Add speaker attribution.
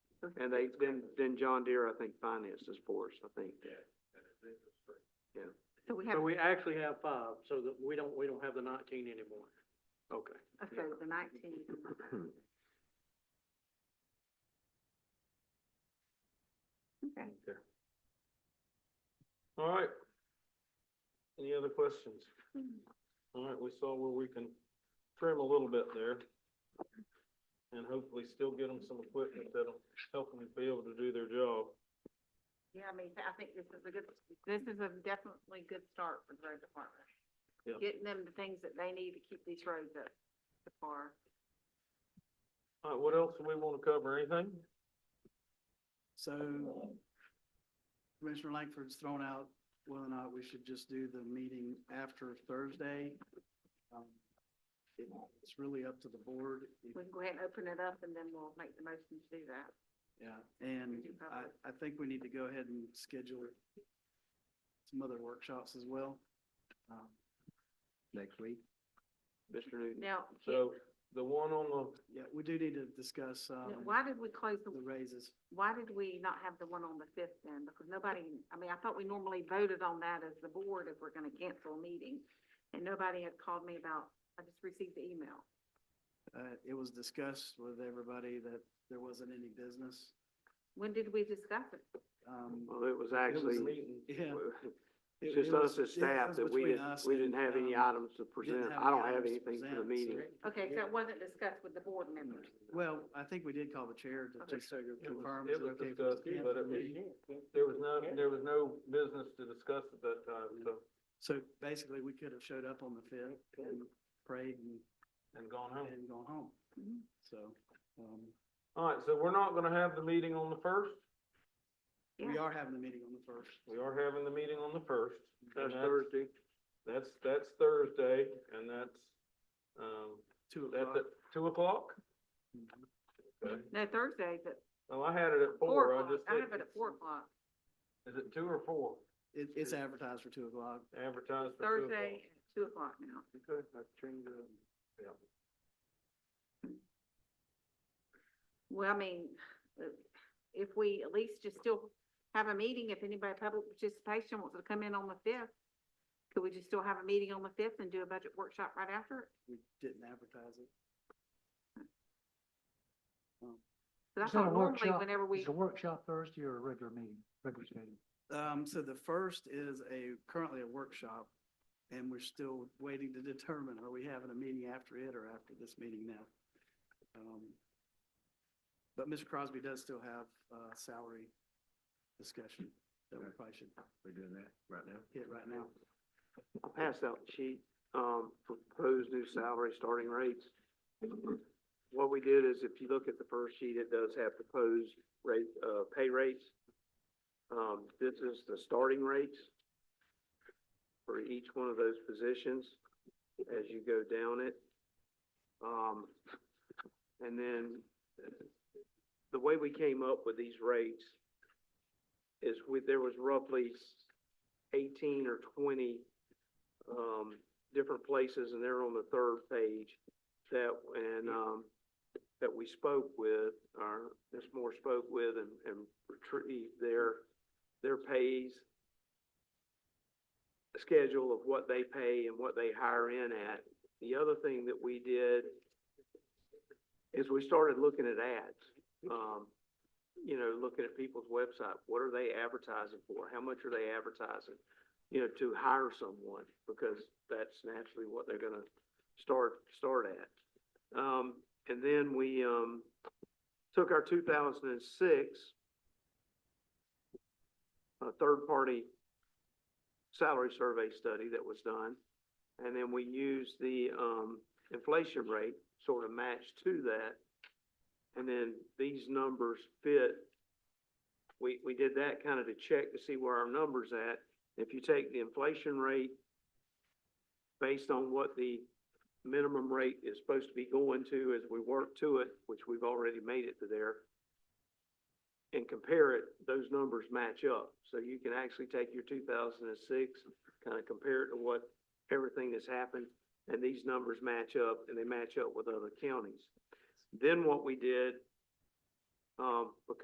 Speaker 1: And they, then, then John Deere, I think, finances for us, I think.
Speaker 2: So we have,
Speaker 3: So we actually have five, so that we don't, we don't have the nineteen anymore.
Speaker 1: Okay.
Speaker 2: okay, the nineteen, okay.
Speaker 3: All right. Any other questions? All right, we saw where we can trim a little bit there. And hopefully still get them some equipment that'll help them be able to do their job.
Speaker 2: Yeah, I mean, I think this is a good, this is a definitely good start for the road department.
Speaker 3: Yeah.
Speaker 2: Getting them the things that they need to keep these roads up to par.
Speaker 3: All right, what else do we want to cover? Anything?
Speaker 4: So Commissioner Langford's thrown out whether or not we should just do the meeting after Thursday. Um, it- It's really up to the board. If-
Speaker 2: We can go ahead and open it up and then we'll make the motion to do that.
Speaker 4: Yeah, and I, I think we need to go ahead and schedule some other workshops as well. Um,
Speaker 1: Next week. Mr. Newton.
Speaker 2: Now, can-
Speaker 3: So the one on the
Speaker 4: Yeah, we do need to discuss um,
Speaker 2: why did we close the,
Speaker 4: the raises.
Speaker 2: why did we not have the one on the fifth then? Because nobody, I mean, I thought we normally voted on that as the board if we're gonna cancel a meeting. And nobody had called me about, I just received the email.
Speaker 4: Uh, It was discussed with everybody that there wasn't any business.
Speaker 2: When did we discuss it?
Speaker 4: Um,
Speaker 1: Well, it was
Speaker 3: it was
Speaker 1: actually,
Speaker 3: meeting,
Speaker 4: Yeah.
Speaker 1: it's
Speaker 4: it- it
Speaker 1: just
Speaker 4: was-
Speaker 1: us as
Speaker 4: it
Speaker 1: staff
Speaker 4: was
Speaker 1: that we
Speaker 4: between
Speaker 1: didn't,
Speaker 4: us
Speaker 1: we
Speaker 4: and,
Speaker 1: didn't have any
Speaker 4: um,
Speaker 1: items to
Speaker 4: didn't
Speaker 1: present.
Speaker 4: have
Speaker 1: I don't
Speaker 4: any
Speaker 1: have
Speaker 4: items to
Speaker 1: anything for the
Speaker 4: present,
Speaker 1: meeting.
Speaker 4: so-
Speaker 2: Okay, so it wasn't discussed with the board members.
Speaker 4: Well, I think we did call the chair to
Speaker 2: Okay.
Speaker 4: just confirm. is
Speaker 3: it was
Speaker 4: okay if we
Speaker 3: discussed,
Speaker 4: discuss
Speaker 3: but
Speaker 4: the
Speaker 3: it was,
Speaker 4: meeting?
Speaker 3: there was no, there was no business to discuss at that time, so,
Speaker 4: So basically, we could have showed up on the fifth and prayed and,
Speaker 3: and gone home.
Speaker 4: and gone home,
Speaker 2: Mhm.
Speaker 4: so. um,
Speaker 3: All right, so we're not gonna have the meeting on the first.
Speaker 4: We
Speaker 2: Yeah.
Speaker 4: are having the meeting on the first.
Speaker 3: We are having the meeting on the first.
Speaker 1: That's Thursday.
Speaker 3: That's, that's Thursday, and that's, um,
Speaker 4: Two
Speaker 3: that's
Speaker 4: o'clock.
Speaker 3: at two o'clock?
Speaker 4: Mhm.
Speaker 3: Okay.
Speaker 2: No, Thursday's at
Speaker 3: Oh, I had it at
Speaker 2: four
Speaker 3: four, I
Speaker 2: o'clock.
Speaker 3: just
Speaker 2: I
Speaker 3: did.
Speaker 2: have it at four o'clock.
Speaker 3: Is it two or four?
Speaker 4: It, it's advertised for two o'clock.
Speaker 3: Advertised for two o'clock.
Speaker 2: Thursday at two o'clock now.
Speaker 1: Okay, I changed it.
Speaker 2: Well, I mean, uh, if we at least just still have a meeting, if anybody, public participation wants to come in on the fifth, could we just still have a meeting on the fifth and do a budget workshop right after? it?
Speaker 4: We didn't advertise it.
Speaker 2: 'Cause I
Speaker 5: It's not a
Speaker 2: thought normally
Speaker 5: workshop.
Speaker 2: whenever we,
Speaker 5: Is a workshop Thursday or a regular meeting, regular meeting?
Speaker 4: Um, so the first is a, currently a workshop, and we're still waiting to determine, are we having a meeting after it or after this meeting now? Um, But Mr. Crosby does still have, uh, salary discussion that we probably should
Speaker 1: We're doing that right now?
Speaker 4: hit right now.
Speaker 1: I passed out the sheet, um, for proposed new salary starting rates. What we did is if you look at the first sheet, it does have proposed rate, uh, pay rates. Um, this is the starting rates for each one of those positions as you go down it. Um, and then the way we came up with these rates is with, there was roughly eighteen or twenty um, different places, and they're on the third page that, and, um, that we spoke with, or Ms. Moore spoke with and, and retrieved their, their pays, schedule of what they pay and what they hire in at. The other thing that we did is we started looking at ads. Um, you know, looking at people's website, what are they advertising for? How much are they advertising? you know, to hire someone, because that's naturally what they're gonna start, start at. Um, and then we, um, took our two thousand and six, uh, third-party salary survey study that was done, and then we used the, um, inflation rate, sort of matched to that. And then these numbers fit. We, we did that kind of to check to see where our numbers at, if you take the inflation rate based on what the minimum rate is supposed to be going to as we work to it, which we've already made it to there, and compare it, those numbers match up. So you can actually take your two thousand and six, kind of compare it to what, everything that's happened, and these numbers match up, and they match up with other counties. Then what we did, um, because